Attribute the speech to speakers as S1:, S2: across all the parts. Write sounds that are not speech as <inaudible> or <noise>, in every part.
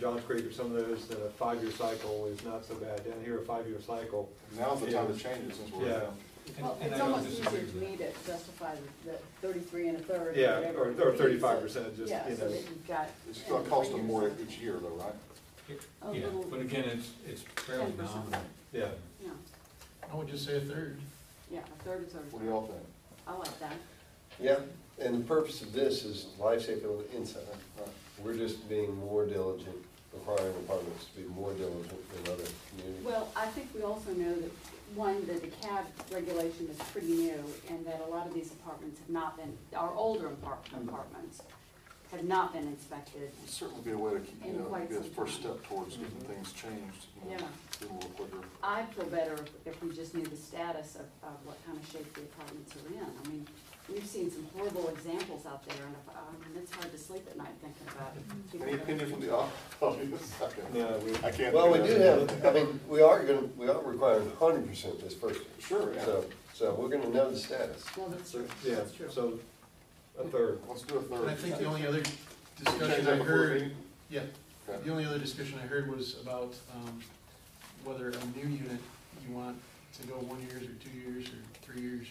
S1: Johns Creek or some of those, then a five-year cycle is not so bad. Down here, a five-year cycle.
S2: Now's the time to change it since we're.
S1: Yeah.
S3: And-
S4: Well,
S3: and I
S4: it's
S3: don't
S4: almost
S3: disagree
S4: easier
S3: with
S4: to
S3: that.
S4: me to justify the the thirty-three and a third. or
S1: Yeah,
S4: whatever
S1: or-
S4: it
S1: or
S4: is.
S1: 35%, just, you
S4: Yeah, so
S1: know.
S4: that you've got.
S2: It's gonna cost them more each year though, right?
S4: A
S3: Yeah,
S4: little-
S3: but again, it's, it's fairly
S4: 10%.
S3: nominal.
S1: Yeah.
S4: Yeah,
S5: I would just say a third.
S4: yeah, a third is
S2: What do
S4: over,
S2: y'all think?
S4: I like that.
S6: Yeah, and the purpose of this is lifesaver on the inside. We're just being more diligent, requiring departments to be more diligent than other communities.
S4: Well, I think we also know that, one, that the cab regulation is pretty new, and that a lot of these apartments have not been, our older apart- apartments have not been inspected.
S2: It'd Certainly be a way to keep, you
S4: In
S2: know,
S4: quite
S2: be a
S4: some
S2: first
S4: time. Mm-hmm.
S2: step towards getting things changed, you know,
S4: Yeah.
S2: a little quicker.
S4: I'd feel better if- if we just knew the status of, of what kind of shape the apartments are in. I mean, we've seen some horrible examples out there, and if- I mean, it's hard to sleep at night thinking about
S7: Mm-hmm.
S4: it.
S2: Any opinion from the au- <laughs> audience? I can't-
S1: No, we-
S2: I can't.
S6: Oh, Well, we
S2: do
S6: do
S2: that.
S6: have, I mean, we are gonna, we are requiring hundred percent this first year.
S2: Sure, yeah.
S6: So, so we're gonna know the status.
S4: No, that's true,
S1: Yeah,
S4: that's true.
S1: so a third.
S2: Let's do a third.
S5: And I think the only other
S2: Change that
S5: discussion I
S2: before the
S5: heard,
S2: meeting?
S5: yeah,
S2: Okay.
S5: the only other discussion I heard was about, um, whether a new unit you want to go one years or two years or three years.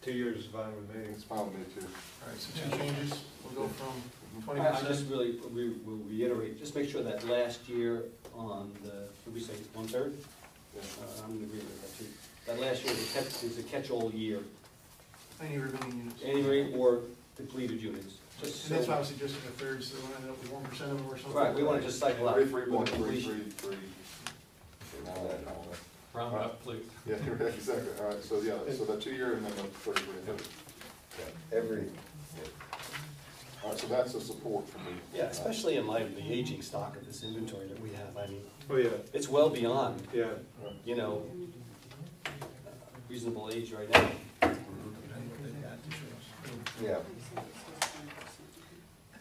S1: Two years is fine with me.
S2: It's fine with me too.
S5: All right, so two changes, we'll go
S6: Mm-hmm.
S5: from twenty
S8: I I just
S5: percent.
S8: really, we will reiterate, just make sure that last year on the, did we say one-third?
S2: Yeah.
S8: Uh, I'm gonna agree with that too. That last year is a catch, is a catch-all year,
S5: Any remaining units.
S8: anyway, or depleted units.
S5: And
S8: Just
S5: that's why I
S8: so,
S5: was suggesting a third, so we'll end up with one percent of them or something.
S8: right, we wanna just cycle out.
S2: Three, three,
S8: with
S2: one,
S8: the
S2: three,
S8: completion.
S2: three, three. And all that, all that.
S3: Round up, please.
S2: Yeah, exactly, all right, so yeah, so the two year and then the third year.
S6: Yeah, Every,
S2: All right, so that's a support for me.
S8: Yeah, especially in light of the aging stock of this inventory that we have, I mean,
S1: Oh, yeah,
S8: it's well beyond,
S1: yeah.
S8: you know, reasonable age right now.
S6: yeah,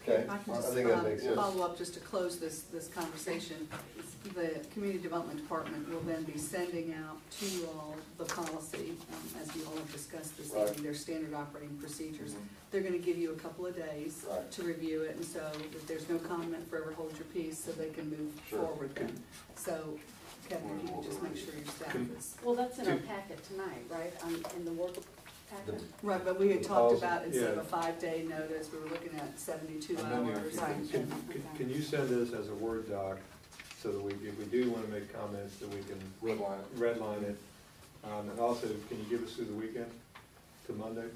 S7: Okay,
S6: Okay.
S7: I can
S6: I
S7: just
S6: think that makes
S7: um,
S6: sense.
S7: follow up, just to close this, this conversation. The Community Development Department will then be sending out to you all the policy, um, as you all have discussed this
S2: Right.
S7: evening, their standard operating procedures.
S2: Mhm.
S7: They're gonna give you a couple of days
S2: Right.
S7: to review it, and so if there's no comment, forever hold your peace, so they can move
S2: Sure.
S7: forward then. So Kevin, if you just make sure your staff is.
S4: Well, that's in our packet tonight, right, Um, in the work packet?
S7: Right, but we had talked
S6: Policy,
S7: about instead of
S1: yeah.
S7: a five-day notice, we were looking at seventy-two
S2: And then you have
S7: hours.
S2: to- Right.
S1: Can, can- can you send this as a Word doc so that we, if we do want to make comments, that we can
S2: Red line.
S1: redline it? Um, and also, can you give us through the weekend to Monday? Is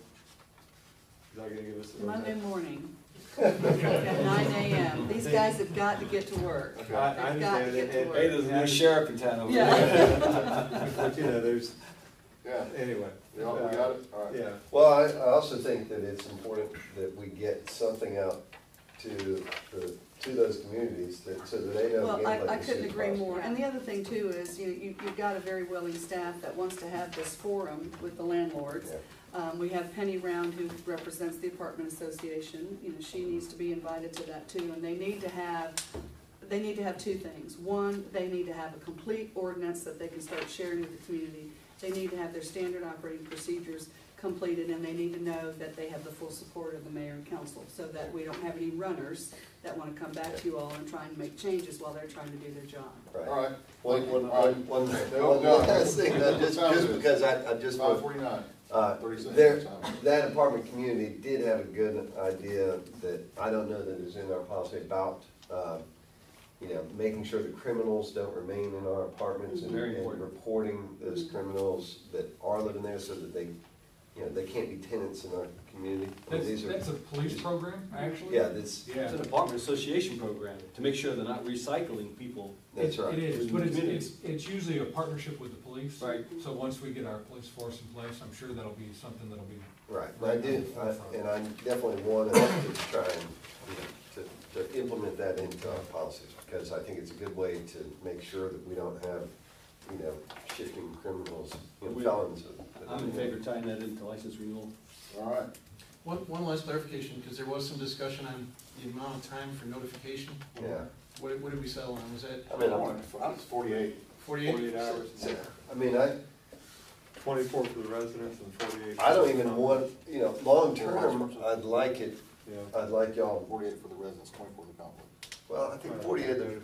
S1: that gonna give us? the
S7: Monday <laughs> morning, at nine AM, these guys have got to get to work.
S1: I, I
S7: They've got to
S1: understand
S7: get to
S1: it.
S7: work.
S8: Hey, there's a new sheriff in town over there.
S7: Yeah,
S1: But, you know, there's,
S2: Yeah,
S1: anyway. uh,
S2: we all, we got it, all right.
S1: Yeah,
S6: Well, I, I also think that it's important that we get something out to the, to those communities that, so that they know.
S7: well,
S6: again,
S7: I,
S6: like
S7: I
S6: this
S7: couldn't
S6: is
S7: agree
S6: possible.
S7: more. And the other thing too is, you, you- you've got a very willing staff that wants to have this forum with the landlords.
S6: Yeah.
S7: Um, we have Penny Round who represents the apartment association, you know, she needs to be invited to that too. And they need to have, they need to have two things. One, they need to have a complete ordinance that they can start sharing with the community. They need to have their standard operating procedures completed and they need to know that they have the full support of the mayor and council. So that we don't have any runners that wanna come back to you all and try and make changes while they're trying to do their job.
S2: All
S6: Right.
S2: right,
S6: One, one,
S2: All right.
S6: one, one,
S2: No,
S6: one
S2: no.
S6: last thing, uh, <laughs> just,
S2: Time
S6: just
S2: is-
S6: because I, I
S2: it's
S6: just.
S2: five forty-nine,
S6: Uh,
S2: thirty seconds.
S6: There,
S2: Time.
S6: that apartment community did have a good idea that, I don't know that is in our policy about, uh, you know, making sure that criminals don't remain in our apartments and,
S8: Very
S6: and
S8: important.
S6: reporting those
S4: Mm-hmm.
S6: criminals that are living there so that they, you know, they can't be tenants in our community. I mean,
S3: That's,
S6: these are-
S3: that's a police program, actually?
S6: Yeah, that's,
S3: Yeah.
S8: It's an apartment association program to make sure they're not recycling people.
S6: that's
S3: It-
S6: right.
S3: It is, but it's, it's, it's usually a partnership with the police.
S8: Right.
S3: So once we get our police force in place, I'm sure that'll be something that'll be
S6: Right, and I do, I- and I definitely want us to try and, you know, to, to implement that into our policies, because I think it's a good way to make sure that we don't have, you know, shifting criminals, you know,
S8: We-
S6: felons.
S8: I'm in favor of tying that into license renewal.
S2: All right,
S5: One, one last clarification, because there was some discussion on the amount of time for notification.
S6: Yeah,
S5: What, what did we settle on? Was that
S6: I mean, I'm-
S2: it's forty-eight.
S5: forty-eight?
S1: forty-eight hours,
S6: so- I mean, I,
S1: twenty-four for the residents and forty-eight.
S6: I don't even want, you know, long-term, I'd like it,
S1: Yeah.
S6: I'd like y'all,
S2: Forty-eight for the residents, twenty-four for the company.
S6: well, I think forty-eight,